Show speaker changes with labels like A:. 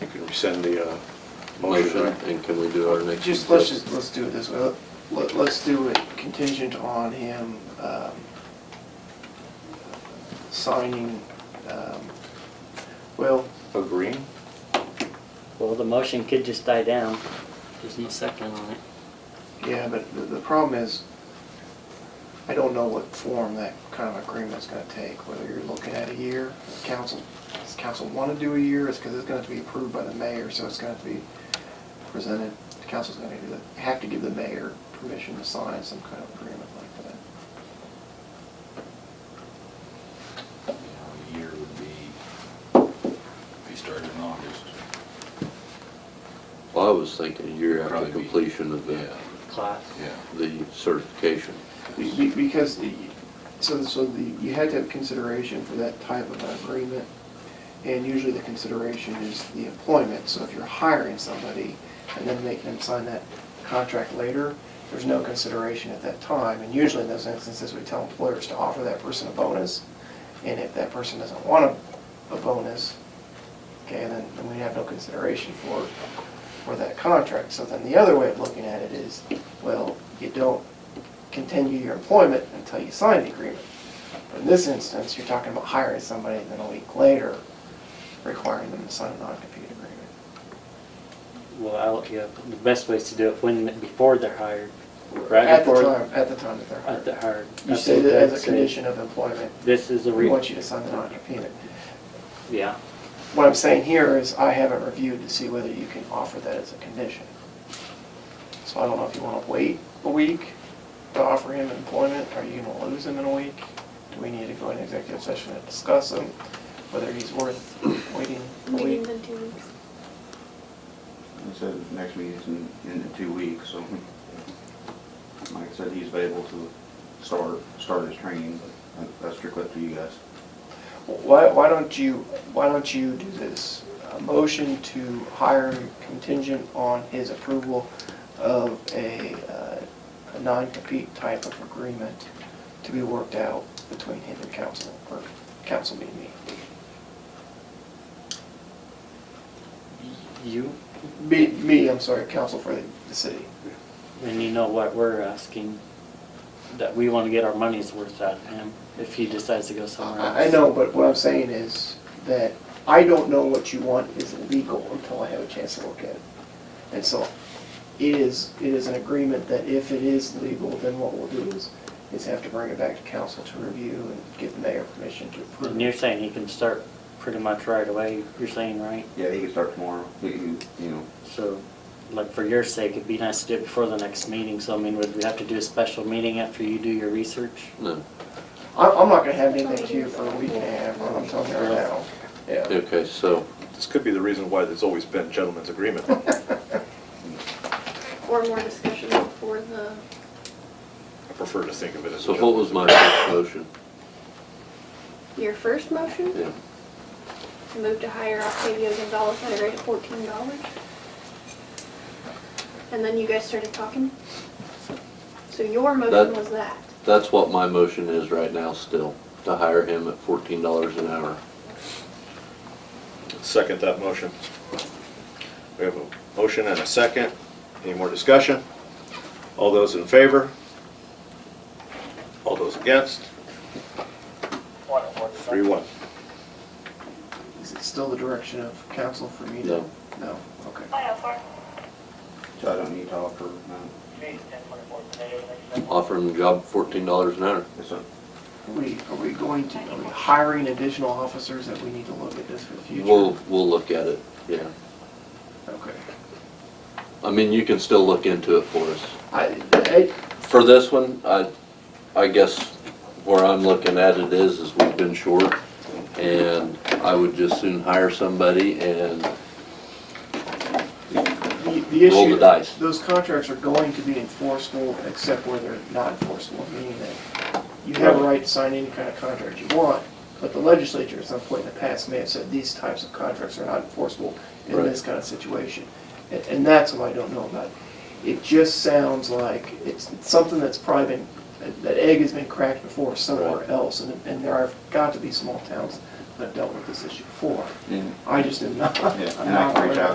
A: rescind the uh,
B: motion,
A: motion.
B: and can we do our next?
C: Just, let's just, let's do it this way. Let, let's do it contingent on him, um, signing, um, well,
A: Agreeing?
D: Well, the motion could just die down. There's no second on it.
C: yeah, but the, the problem is, I don't know what form that kind of agreement's gonna take, whether you're looking at a year, if council, does council wanna do a year, it's because it's gonna have to be approved by the mayor, so it's gonna have to be presented, the council's gonna have to- have to give the mayor permission to sign some kind of agreement like that.
E: you know, a year would be, if you started in August.
B: Well, I was thinking a year after
E: Probably be-
B: completion of the,
D: Class.
E: Yeah.
B: the certification.
C: Be- be- Because, the- so, so the, you had to have consideration for that type of an agreement, and usually the consideration is the employment, so if you're hiring somebody and then making them sign that contract later, there's no consideration at that time, and usually in those instances, we tell employers to offer that person a bonus, and if that person doesn't want a, a bonus, okay, then, then we have no consideration for, for that contract. So then the other way of looking at it is, well, you don't continue your employment until you sign the agreement. In this instance, you're talking about hiring somebody, and then a week later, requiring them to sign a non-compete agreement.
D: Well, I'll, yeah, the best way is to do it when, before they're hired. right
C: At the
D: before-
C: time, at the time that they're
D: At the
C: hired.
D: hired.
C: You
D: That's
C: say
D: what
C: that
D: I'd
C: as a
D: say.
C: condition of employment,
D: This is a
C: we
D: re.
C: want you to sign the non-compete.
D: Yeah,
C: What I'm saying here is I haven't reviewed to see whether you can offer that as a condition. So I don't know if you want to wait a week to offer him employment, are you going to lose him in a week? Do we need to go into executive session and discuss him, whether he's worth waiting a week?
F: Meetings in two weeks.
G: I said, next meeting's in, in two weeks, so, Mike said he's available to start, start his training, but that's strictly up to you guys.
C: Why, why don't you, why don't you do this? A motion to hire contingent on his approval of a, uh, a non-compete type of agreement to be worked out between him and council, or council being me.
D: you,
C: Me, me, I'm sorry, council for the, the city.
D: and you know what we're asking, that we want to get our money's worth out of him if he decides to go somewhere else.
C: I, I know, but what I'm saying is that I don't know what you want is legal until I have a chance to look at it. And so it is, it is an agreement that if it is legal, then what we'll do is, is have to bring it back to council to review and give the mayor permission to approve.
D: And you're saying he can start pretty much right away, you're saying, right?
G: Yeah, he can start tomorrow, he, he- you know,
D: So, like, for your sake, it'd be nice to do it before the next meeting, so I mean, would we have to do a special meeting after you do your research?
B: No,
C: I'm, I'm not gonna have anything to you for a week and a half, I'm telling you right now. Yeah.
B: okay, so,
A: This could be the reason why there's always been gentlemen's agreement.
F: Or more discussion before the,
A: I prefer to think of it as a
B: so what was
A: gentleman's
B: my first motion?
F: your first motion,
B: Yeah,
F: to move to hire Octavio Gonzalez at a rate of fourteen dollars. And then you guys started talking. So your motion
B: That-
F: was that.
B: that's what my motion is right now still, to hire him at fourteen dollars an hour.
A: agreement. Second that motion. We have a motion and a second. Any more discussion? All those in favor? All those against? Three, one.
C: Is it still the direction of council for me to?
B: No.
C: No, okay.
G: so I don't need to offer, uh, no,
B: Offer him the job fourteen dollars an hour.
G: it's a,
C: Are we, are we going to, are we hiring additional officers that we need to look at this for the future?
B: We'll, we'll look at it, yeah.
C: Okay.
B: I mean, you can still look into it for us.
C: I, I,
B: For this one, I, I guess where I'm looking at it is, is we've been short, and I would just soon hire somebody and
C: The the
B: Roll the
C: issue,
B: dice.
C: those contracts are going to be enforceable except where they're not enforceable, meaning that you have a right to sign any kind of contract you want, but the legislature at some point in the past may have said these types of contracts are not enforceable in
B: Right.
C: this kind of situation. And, and that's what I don't know about. It just sounds like it's it's something that's probably been, that- that egg has been cracked before somewhere
B: Right.
C: else, and, and there have got to be small towns that have dealt with this issue before.
G: and
C: I just am not.
G: Yeah,
C: I'm
G: and I
C: not
G: can reach
C: aware of
G: out